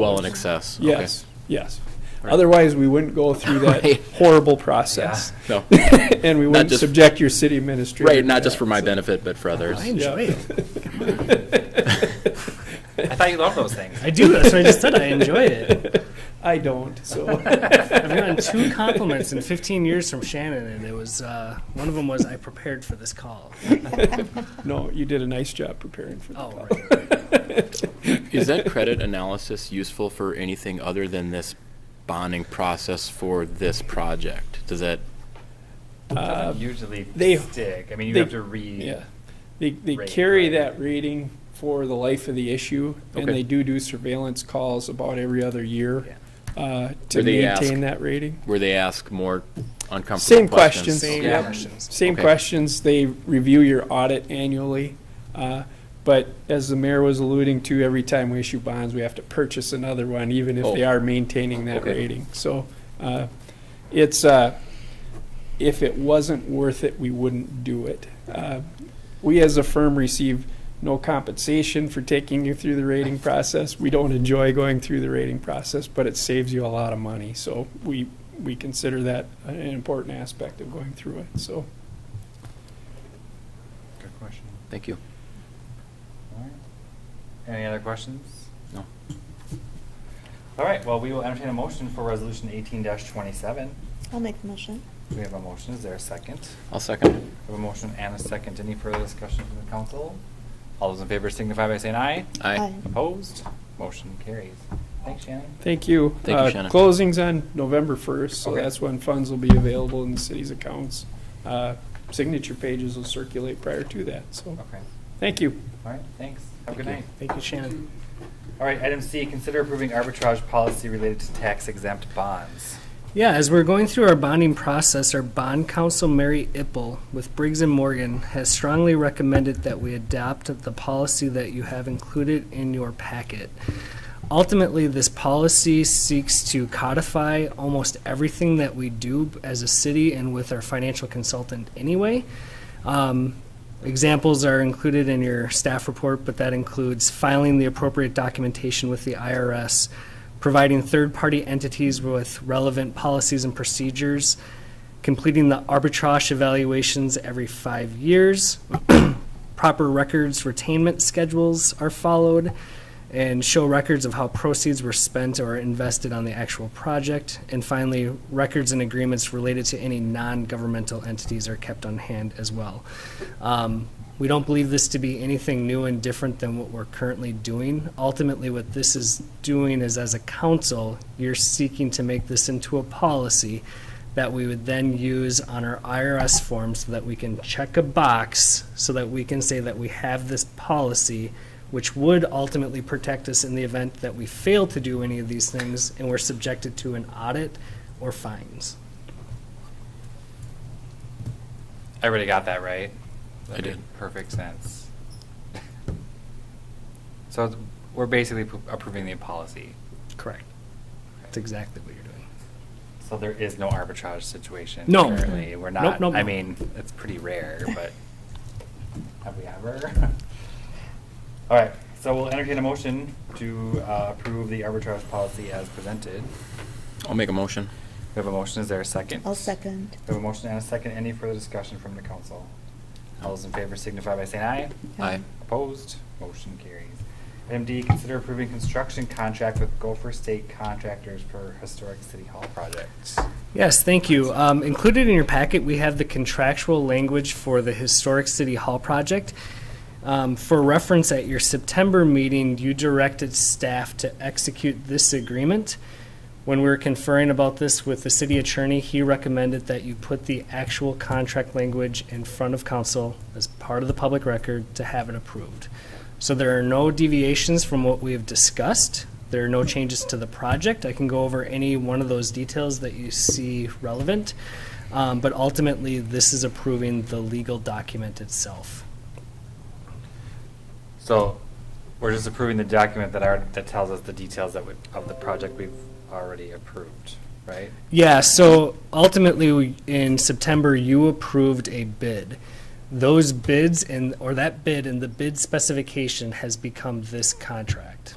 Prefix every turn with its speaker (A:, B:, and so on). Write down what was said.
A: Well in excess. Okay.
B: Yes, yes. Otherwise, we wouldn't go through that
A: Right.
B: horrible process.
A: No.
B: And we wouldn't
A: just-
B: subject your city administrator.
A: Right, not
B: to
A: just for
B: that.
A: my benefit, but for others.
C: I
B: Yeah.
C: enjoy it.
D: I thought you loved those things.
C: I do. That's what I just said. I enjoy it.
B: I don't, so.
C: I've gotten two compliments in 15 years from Shannon, and it was uh, one of them was I prepared for this call.
B: No, you did a nice job preparing for that.
C: Oh, right. right.
A: Is that credit analysis useful for anything other than this bonding process for this project? Does that,
D: Doesn't usually
B: Uh, they-
D: stick. I mean, you
B: they-
D: have to read.
B: Yeah. They, they
D: Rate,
B: carry
D: right.
B: that rating for the life of the issue, and
A: Okay.
B: they do do surveillance calls about every other year uh, to
A: Where they ask-
B: maintain that rating.
A: where they ask more uncomfortable questions?
B: Same questions.
C: Same
B: yep.
C: questions.
B: Same
A: Okay.
B: questions. They review your audit annually. uh, But as the mayor was alluding to, every time we issue bonds, we have to purchase another one, even if they
A: Oh.
B: are maintaining that
A: Okay.
B: rating. So uh, it's, uh, if it wasn't worth it, we wouldn't do it. Uh, We as a firm receive no compensation for taking you through the rating process. We don't enjoy going through the rating process, but it saves you a lot of money. So we, we consider that an important aspect of going through it, so.
D: Good question.
A: Thank you.
D: All right. Any other questions?
A: No.
D: All right. Well, we will entertain a motion for resolution 18 27.
E: I'll make the motion.
D: We have a motion. Is there a second?
A: I'll second.
D: We have a motion and a second. Any further discussion from the council? All those in favor signify by saying aye.
A: Aye.
E: Aye.
D: Opposed? Motion carries. Thanks, Shannon.
B: Thank you.
A: Thank you,
B: Uh,
A: Shannon.
B: Closing's on November 1st, so
D: Okay.
B: that's when funds will be available in the city's accounts. Uh, Signature pages will circulate prior to that, so,
D: Okay.
B: thank you.
D: All right. Thanks. Have a good
A: Thank you.
D: night.
C: Thank you, Shannon.
D: All right, item C, consider approving arbitrage policy related to tax exempt bonds.
C: Yeah, as we're going through our bonding process, our bond counsel, Mary Ipple, with Briggs and Morgan, has strongly recommended that we adopt the policy that you have included in your packet. Ultimately, this policy seeks to codify almost everything that we do as a city and with our financial consultant anyway. Um, Examples are included in your staff report, but that includes filing the appropriate documentation with the IRS, providing third-party entities with relevant policies and procedures, completing the arbitrage evaluations every five years, proper records retainment schedules are followed, and show records of how proceeds were spent or invested on the actual project, and finally, records and agreements related to any non-governmental entities are kept on hand as well. Um, We don't believe this to be anything new and different than what we're currently doing. Ultimately, what this is doing is, as a council, you're seeking to make this into a policy that we would then use on our IRS form so that we can check a box so that we can say that we have this policy, which would ultimately protect us in the event that we fail to do any of these things and we're subjected to an audit or fines.
D: Everybody got that right?
A: I
D: That
A: did.
D: made Perfect sense. So it's- we're basically pro- approving the policy.
C: Correct. That's exactly what you're doing.
D: So there is no arbitrage situation.
C: No.
D: Currently, we're
C: Nope,
D: not,
C: nope,
D: I
C: nope.
D: mean, it's pretty rare, but have we ever? All right, so we'll entertain a motion to uh, approve the arbitrage policy as presented.
A: I'll make a motion.
D: We have a motion, is there a 2nd
E: I'll second.
D: We have a motion and a second. Any further discussion from the council? All those in favor signify by saying aye.
A: Aye.
D: Opposed? Motion carries. Item D, consider approving construction contract with Gopher State Contractors for historic city hall projects.
C: Yes, thank you. Um, Included in your packet, we have the contractual language for the Historic City Hall project. Um, For reference, at your September meeting, you directed staff to execute this agreement. When we were conferring about this with the city attorney, he recommended that you put the actual contract language in front of council as part of the public record to have it approved. So there are no deviations from what we have discussed. There are no changes to the project. I can go over any one of those details that you see relevant. Um, But ultimately, this is approving the legal document itself.
D: So we're just approving the document that are, that tells us the details that we, of the project we've already approved, right?
C: Yeah, so ultimately, we- in September, you approved a bid. Those bids and, or that bid and the bid specification has become this contract.